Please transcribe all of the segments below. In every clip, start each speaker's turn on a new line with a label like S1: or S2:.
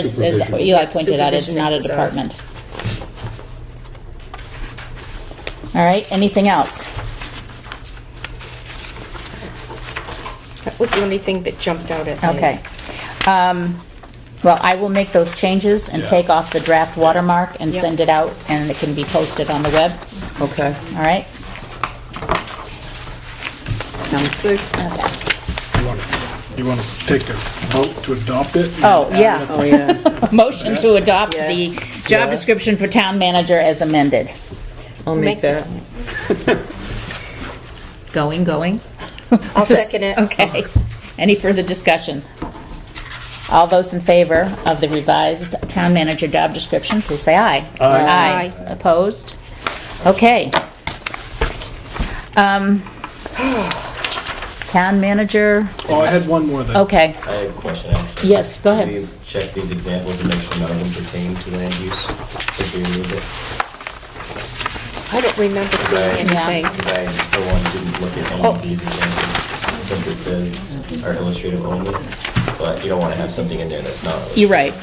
S1: As as
S2: Supervision.
S1: Eli pointed out, it's
S3: Supervision
S1: not a
S3: exercise.
S1: department. All right, anything else?
S3: That was the only thing that jumped out at me.
S1: Okay. Um, Well, I will make those changes and
S2: Yeah.
S1: take off the draft watermark and
S3: Yeah.
S1: send it out, and it can be posted on the web,
S4: Okay,
S1: all right?
S4: sounds good.
S3: Good.
S1: Okay.
S2: You want to take a vote to adopt it?
S1: Oh, yeah.
S4: Oh, yeah.
S1: Motion to adopt
S3: Yeah.
S1: the job description for town manager as amended.
S4: I'll
S3: Make
S4: make that.
S1: Going, going?
S3: I'll second it.
S1: Okay. Any further discussion? All those in favor of the revised town manager job description, please say aye.
S3: Aye.
S1: Opposed? Okay. Um, Town manager,
S2: Oh, I had one more that.
S1: okay,
S5: I have a question, actually.
S1: yes, go
S5: Can
S1: ahead.
S5: we check these examples to make sure none of them pertain to land use? If we remove it?
S3: I don't remember seeing
S5: Right.
S1: Yeah.
S3: anything.
S5: Because I, for one, didn't look at any of these examples, since it says are illustrative only, but you don't want to have something in there that's not. illustrative.
S1: You're right.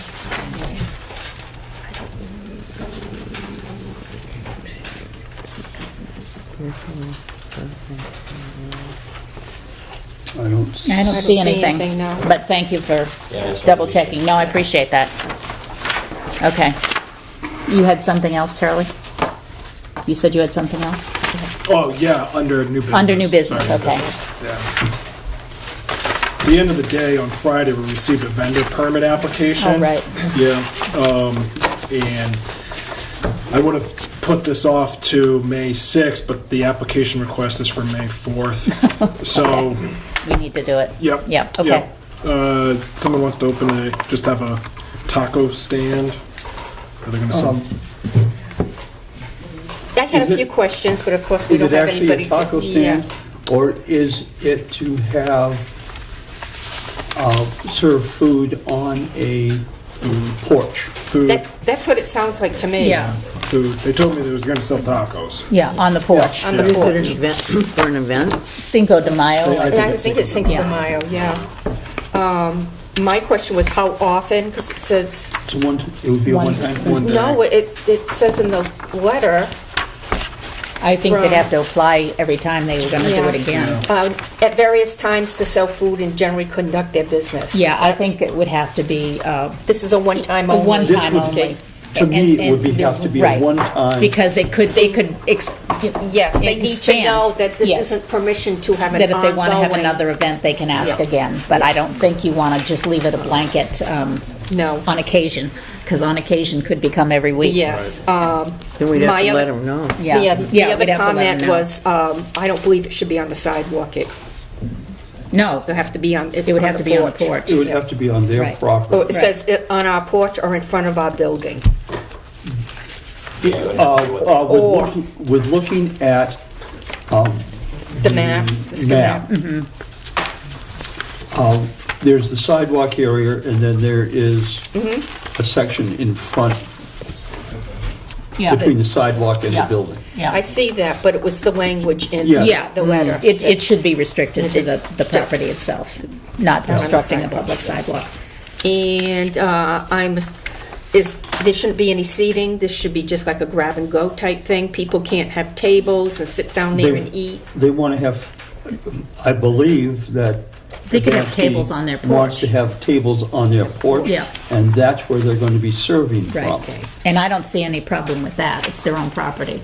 S2: I don't.
S1: I don't see anything,
S3: no.
S1: but thank you for
S5: Yeah, I just wanted to
S1: double
S5: be sure.
S1: checking. No, I appreciate that. Okay. You had something else, Charlie? You said you had something else?
S2: Oh, yeah, under new business.
S1: Under new business,
S2: Sorry.
S1: okay.
S2: Yeah. At the end of the day, on Friday, we received a vendor permit application.
S1: Oh, right.
S2: Yeah, um, and I would have put this off to May 6th, but the application request is for May 4th. So,
S1: We need to do it.
S2: yep.
S1: Yep, okay.
S2: Uh, someone wants to open a, just have a taco stand? Are they gonna sell?
S3: I had
S6: Is
S3: a
S6: it-
S3: few questions, but of course, we
S6: Is
S3: don't
S6: it
S3: have
S6: actually
S3: anybody
S6: a
S3: to...
S6: taco
S3: yeah.
S6: stand? Or is it to have, uh, serve food on a mm, porch?
S2: Food,
S3: That, that's what it sounds like to me.
S2: food. They told me they was gonna sell tacos.
S1: Yeah, on the porch.
S3: On the
S4: Is it an
S3: porch.
S4: event, for an event?
S1: Cinco de Mayo.
S2: So
S3: And I think it's Cinco de
S1: Yeah.
S3: Mayo, yeah. Um, My question was how often, because it says,
S6: It's a one, it would be a
S1: One-
S6: one-time thing?
S3: no, it, it says in the letter,
S1: I think they'd
S3: From-
S1: have to apply every time they were gonna do
S3: Yeah.
S1: it again.
S3: um, at various times to sell food and generally conduct their business.
S1: Yeah, I think it would have to be, uh,
S3: This is a one-time
S1: A
S3: only.
S1: one-time
S3: Okay.
S1: only.
S6: To me, it would be-
S1: And- and-
S6: have to be a
S1: right.
S6: one-time-
S1: Because they could, they could, ex-
S3: Yes, they need to
S1: Expand.
S3: know that this
S1: Yes.
S3: isn't permission to have an
S1: that
S3: ongoing...
S1: if they want to have another event, they can ask
S3: Yeah.
S1: again. But I don't think you want to just leave it a blanket um,
S3: No.
S1: on occasion, because on occasion could become every week.
S3: Yes. um,
S4: Then we'd have
S3: my
S4: to let
S3: other-
S4: them know.
S1: Yeah.
S3: The oth- the
S1: we'd have to let
S3: other
S1: 'em
S3: comment
S1: know.
S3: was, um, I don't believe it should be on the sidewalk. It
S1: No,
S3: would have to be on, it
S1: it would have to be on the porch.
S6: It would have to be on their
S1: Right.
S3: Or it
S6: property.
S3: says it on our porch or in front of our building.
S6: Uh, uh, With
S3: Or-
S6: looking, with looking at um,
S3: The map. the schematic.
S6: map,
S3: mm-hmm.
S6: um, there's the sidewalk area, and then there is
S3: Mm-hmm.
S6: a section in front, between the sidewalk and the
S1: Yeah.
S6: building.
S3: I
S1: Yeah,
S3: see that, but it was the language in
S6: Yeah.
S1: yeah.
S3: the letter.
S1: It, it should be restricted to
S3: It-
S1: the, the property itself, not obstructing a
S3: sidewalk.
S1: public sidewalk.
S3: And uh, I'm, is, there shouldn't be any seating. This should be just like a grab-and-go type thing. People can't have tables and sit down there
S6: They-
S3: and eat.
S6: They want to have, I believe that.
S1: They could have
S6: Adamski
S1: tables on their
S6: Wants
S1: porch.
S6: to have tables on their porch.
S1: Yeah.
S6: And that's where they're going to be serving from.
S1: Right. And I don't see any problem with that. It's their own property.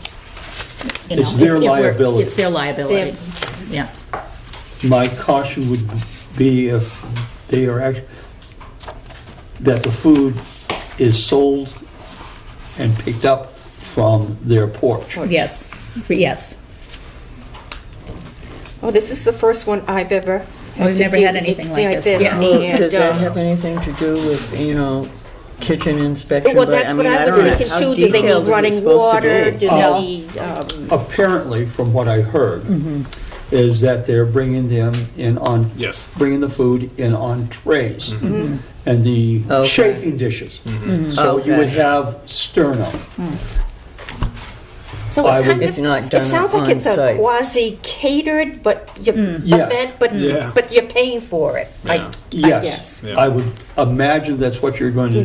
S1: You
S6: It's
S1: know,
S6: their
S1: if- if we're-
S6: liability.
S1: It's their liability. Yeah,
S6: My caution would be if they are act, that the food is sold and picked up from their porch.
S1: yes, yes.
S3: Oh, this is the first one I've ever had
S1: We've
S3: to
S1: never
S3: do
S1: had anything like this. Yeah.
S4: Well,
S3: and,
S4: does
S3: uh,
S4: that have anything to do with, you know, kitchen inspection?
S3: Well,
S4: But,
S3: that's what
S4: mean,
S3: I was
S4: don't know.
S3: thinking
S4: How
S3: too. Do they
S4: detailed
S3: need
S4: is it
S3: running
S4: supposed to
S3: water?
S4: be?
S3: Do
S1: No.
S3: they need, um,
S6: Apparently, from what I heard,
S4: Mm-hmm.
S6: is that they're bringing them in on.
S2: Yes. Mm-hmm.
S6: Bringing the food in on trays. And the
S4: Mm-hmm. Okay.
S6: chafing dishes. So you would
S4: Okay. Mm.
S6: have sterno.
S3: so
S6: I
S3: it's
S6: would-
S3: kind of.
S4: It's not
S3: It
S4: done
S3: sounds like
S4: on
S3: it's a
S4: site.
S3: quasi catered, but you,
S1: Hmm.
S6: Yes.
S3: event, but,
S2: Yeah.
S3: but you're paying for it, I, I
S6: Yes.
S3: guess.
S2: Yeah.
S6: I would imagine that's what you're going to